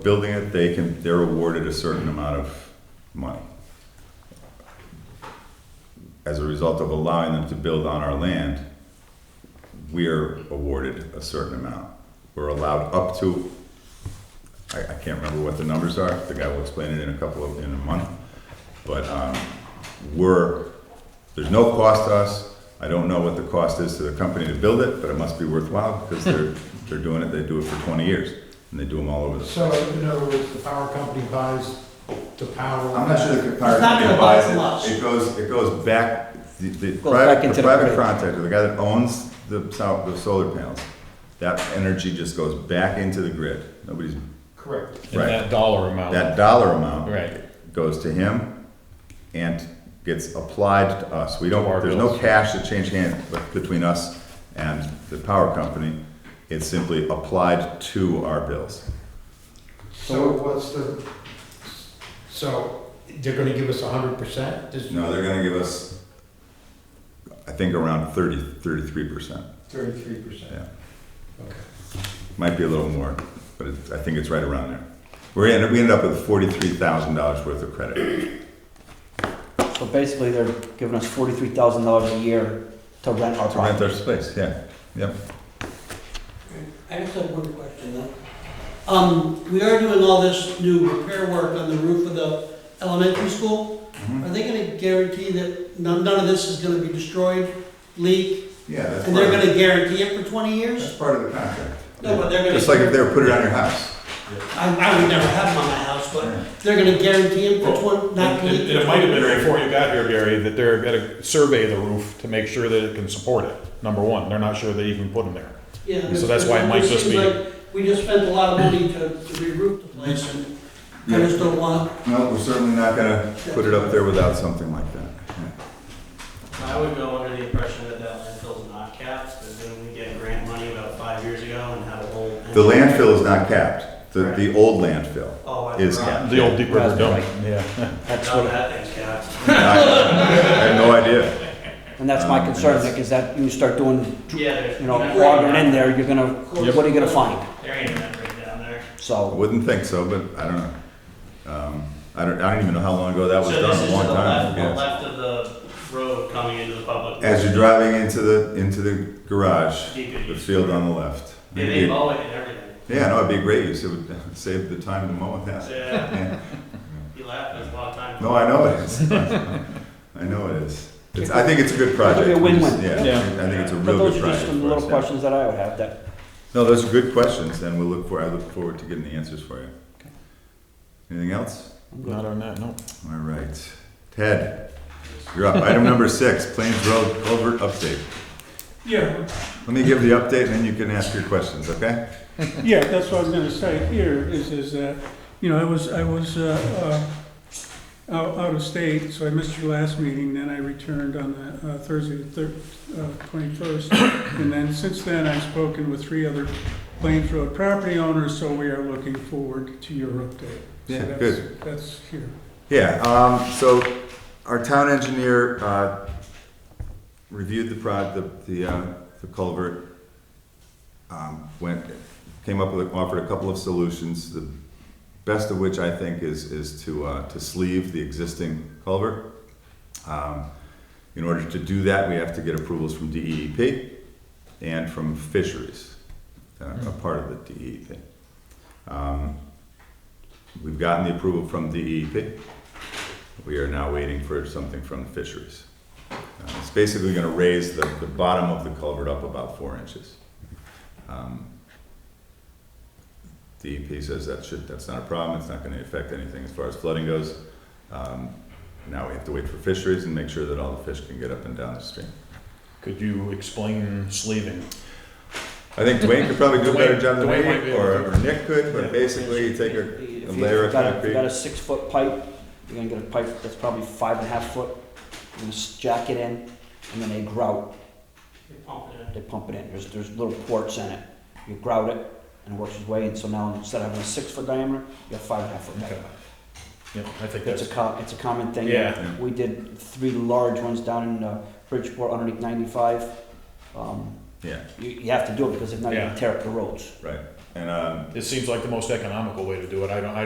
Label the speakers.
Speaker 1: building it, they can, they're awarded a certain amount of money. As a result of allowing them to build on our land, we're awarded a certain amount. We're allowed up to, I, I can't remember what the numbers are, the guy will explain it in a couple of, in a month. But, um, we're, there's no cost to us. I don't know what the cost is to the company to build it, but it must be worthwhile because they're, they're doing it, they do it for twenty years and they do them all over the
Speaker 2: So in other words, the power company buys the power.
Speaker 1: I'm not sure the power
Speaker 3: It's not
Speaker 1: company
Speaker 3: gonna buy
Speaker 1: buys
Speaker 3: us much.
Speaker 1: it. It goes, it goes back, the, the
Speaker 4: Goes back
Speaker 1: private,
Speaker 4: into
Speaker 1: the
Speaker 4: the
Speaker 1: private
Speaker 4: grid.
Speaker 1: contractor, the guy that owns the sou- the solar panels, that energy just goes back into the grid. Nobody's,
Speaker 2: Correct.
Speaker 5: And
Speaker 1: Right.
Speaker 5: that dollar amount.
Speaker 1: that dollar amount
Speaker 5: Right.
Speaker 1: goes to him and gets applied to us. We
Speaker 5: To our
Speaker 1: don't, there's no
Speaker 5: bills.
Speaker 1: cash that change hands be- between us and the power company. It's simply applied to our bills.
Speaker 2: So what's the, so they're gonna give us a hundred percent?
Speaker 1: No, they're gonna give us, I think, around thirty, thirty-three percent.
Speaker 2: Thirty-three percent.
Speaker 1: Yeah.
Speaker 2: Okay.
Speaker 1: Might be a little more, but it, I think it's right around there. We're in, we ended up with forty-three thousand dollars worth of credit.
Speaker 4: So basically, they're giving us forty-three thousand dollars a year to rent our
Speaker 1: To rent
Speaker 4: property.
Speaker 1: their space, yeah, yep.
Speaker 3: I just have one question, though. Um, we are doing all this new repair work on the roof of the elementary school.
Speaker 5: Mm-hmm.
Speaker 3: Are they gonna guarantee that none, none of this is gonna be destroyed, leak,
Speaker 1: Yeah, that's
Speaker 3: and they're
Speaker 1: part of,
Speaker 3: gonna guarantee it for twenty years?
Speaker 1: that's part of the contract.
Speaker 3: No, but they're gonna.
Speaker 1: Just like if they were put it on your house.
Speaker 3: I, I would never have them on my house, but they're gonna guarantee it for twen, not to
Speaker 5: And,
Speaker 3: leak.
Speaker 5: and it might have been before you got here, Gary, that they're gonna survey the roof to make sure that it can support it, number one. They're not sure they even put them there.
Speaker 3: Yeah.
Speaker 5: So that's why it might just be-
Speaker 3: seems like We just spent a lot of money to, to re-roof the place, and I just don't want,
Speaker 1: No, we're certainly not gonna put it up there without something like that.
Speaker 6: I would go under the impression that that landfill's not capped, but then we get grant money about five years ago and had a whole.
Speaker 1: The landfill is not capped. The, the old landfill
Speaker 6: Oh, I
Speaker 1: is
Speaker 6: forgot.
Speaker 1: capped.
Speaker 5: The old Deep River
Speaker 4: That's
Speaker 5: Dome.
Speaker 4: right.
Speaker 5: Yeah.
Speaker 4: That's
Speaker 6: Now
Speaker 4: what,
Speaker 6: that thing's capped.
Speaker 1: I I have no idea.
Speaker 4: and that's my
Speaker 1: Um, and
Speaker 4: concern,
Speaker 1: that's-
Speaker 4: Nick, is that you start doing,
Speaker 6: Yeah, there's.
Speaker 4: you know,
Speaker 6: there's-
Speaker 4: logging in there, you're gonna,
Speaker 3: Yep.
Speaker 4: what are you gonna find?
Speaker 6: There ain't a membrane down there.
Speaker 1: I
Speaker 4: So,
Speaker 1: Wouldn't think so, but I don't know. Um, I don't, I don't even know how long ago that was
Speaker 6: So this
Speaker 1: done,
Speaker 6: is
Speaker 1: a
Speaker 6: to
Speaker 1: long
Speaker 6: the
Speaker 1: time.
Speaker 6: left, the
Speaker 1: yeah.
Speaker 6: left of the road coming into the public.
Speaker 1: As you're driving into the, into the garage,
Speaker 6: You could
Speaker 1: the
Speaker 6: use-
Speaker 1: field on the left.
Speaker 6: Yeah, they mow it and everything.
Speaker 1: Yeah, no, it'd be a great use, it would save the time to mow it that.
Speaker 6: Yeah,
Speaker 1: Yeah.
Speaker 6: you laugh, there's a lot of time.
Speaker 1: No, I know it is. I know it is. It's, I think it's a good project.
Speaker 4: It'll be a win-win.
Speaker 1: Yeah,
Speaker 5: Yeah.
Speaker 1: I think it's a
Speaker 4: but
Speaker 1: real
Speaker 4: those
Speaker 1: good
Speaker 4: are
Speaker 1: project
Speaker 4: just some
Speaker 1: for
Speaker 4: little
Speaker 1: us. yeah.
Speaker 4: questions that I would have, that,
Speaker 1: No, those are good questions, and we'll look for, I look forward to getting the answers for you. Anything else?
Speaker 5: Not on that, no.
Speaker 1: All right. Ted, you're up. Item number six, Plains Road Culvert Update.
Speaker 7: Yeah,
Speaker 1: Let me give the update, and then you can ask your questions, okay?
Speaker 7: yeah, that's what I was gonna say here, is, is that, you know, I was, I was, uh, uh, out, out of state, so I missed your last meeting, then I returned on the, uh, Thursday, the thir- uh, twenty-first. And then, since then, I've spoken with three other Plains Road property owners, so we are looking forward to your update. So
Speaker 1: Yeah,
Speaker 7: that's-
Speaker 1: good.
Speaker 7: That's here.
Speaker 1: Yeah, um, so our town engineer, uh, reviewed the prod, the, the, uh, the culvert. Um, went, came up with, offered a couple of solutions, the best of which I think is, is to, uh, to sleeve the existing culvert. Um, in order to do that, we have to get approvals from DEEP and from fisheries, uh, a part of the DEEP. Um, We've gotten the approval from E DEP. We are now waiting for something from the fisheries. Uh, It's basically gonna raise the, the bottom of the culvert up about four inches. Um, DEP says that should, that's not a problem, it's not gonna affect anything as far as flooding goes. Um, Now we have to wait for fisheries and make sure that all the fish can get up and down the stream.
Speaker 5: Could you explain sleeving?
Speaker 1: I think Dwayne could probably do a better job than
Speaker 5: Dwayne- Dwayne might
Speaker 1: me,
Speaker 5: be able
Speaker 1: or
Speaker 5: to.
Speaker 1: or Nick could, but basically you take a a
Speaker 4: if you
Speaker 1: layer of
Speaker 4: got, a- if you got
Speaker 1: concrete.
Speaker 4: a six-foot pipe, you're gonna get a pipe that's probably five and a half foot, you're gonna s- jack it in, and then they grout,
Speaker 6: You pump it in.
Speaker 4: they pump it in, there's, there's little ports in it. You grout it, and it works its way in, so now instead of having a six-foot diameter, you have five and a half foot diameter.
Speaker 5: Yeah, I think
Speaker 4: It's a
Speaker 5: that's,
Speaker 4: co- it's a common thing.
Speaker 5: yeah.
Speaker 4: We did three large ones down in uh, Bridgeport underneath ninety-five. Um,
Speaker 1: Yeah,
Speaker 4: you, you have to do it because if not, you
Speaker 5: Yeah.
Speaker 4: tear up the roads.
Speaker 1: right. And, um,
Speaker 5: It seems like the most economical way to do it. I don't, I